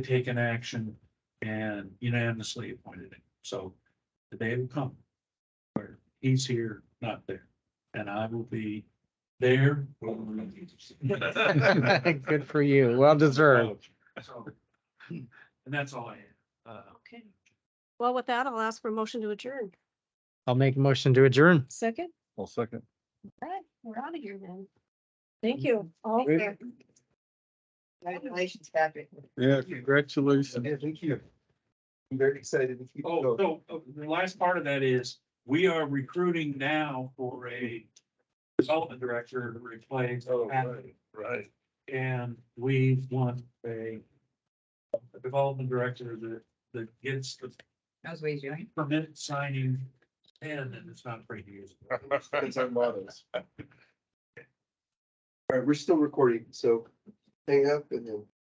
taken action and unanimously appointed him. So the day will come where he's here, not there, and I will be there. Good for you. Well deserved. So, And that's all I have. Uh, Okay. Well, with that, I'll ask for a motion to adjourn. I'll make a motion to adjourn. Second? Well, second. All right, we're out of here then. Thank you. All Great. there. Congratulations, Patrick. Yeah, congratulations. thank you. I'm very excited to keep Oh, so uh, the last part of that is, we are recruiting now for a development director to replace. Patrick. Oh, Right. And we want a a development director that, that gets the How's Wade doing? permit signing pen and it's not three years. That's our models. All right, we're still recording, so hang up and then.